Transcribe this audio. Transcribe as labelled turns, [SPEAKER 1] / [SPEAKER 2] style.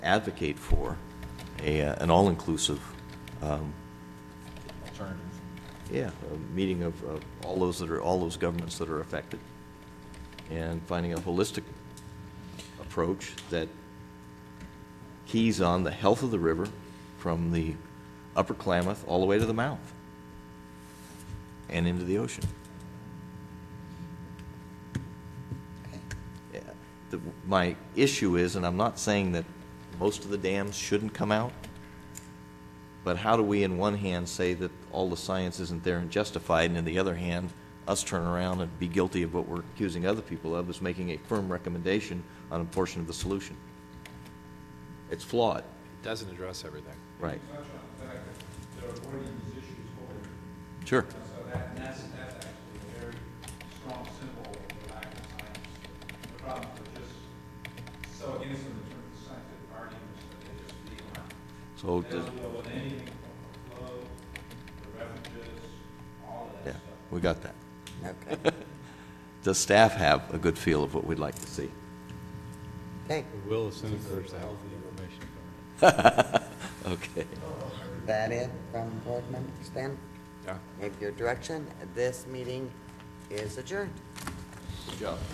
[SPEAKER 1] advocate for a, uh, an all-inclusive, um,
[SPEAKER 2] Alternative.
[SPEAKER 1] yeah, a meeting of, of all those that are, all those governments that are affected, and finding a holistic approach that keys on the health of the river from the upper Klamath all the way to the mouth and into the ocean. Yeah, the- My issue is, and I'm not saying that most of the dams shouldn't come out, but how do we, in one hand, say that all the science isn't there and justified, and in the other hand, us turn around and be guilty of what we're accusing other people of, is making a firm recommendation on a portion of the solution? It's flawed.
[SPEAKER 3] It doesn't address everything.
[SPEAKER 1] Right.
[SPEAKER 4] touch on the fact that they're avoiding these issues wholly.
[SPEAKER 1] Sure.
[SPEAKER 4] So that, and that's, that's actually a very strong symbol of the lack of science. The problems are just so against them in terms of scientific arguments that they just feel like.
[SPEAKER 1] So,
[SPEAKER 4] They
[SPEAKER 1] does-
[SPEAKER 4] don't deal with anything from the flow, the refuges, all of
[SPEAKER 1] yeah,
[SPEAKER 4] that stuff.
[SPEAKER 1] we got that.
[SPEAKER 5] Okay,
[SPEAKER 1] Does staff have a good feel of what we'd like to see?
[SPEAKER 5] okay,
[SPEAKER 3] We will as soon as there's healthy information coming
[SPEAKER 1] Okay.
[SPEAKER 5] is that it from board members then?
[SPEAKER 3] in. Yeah.
[SPEAKER 5] Give your direction, this meeting is adjourned.
[SPEAKER 1] Good job.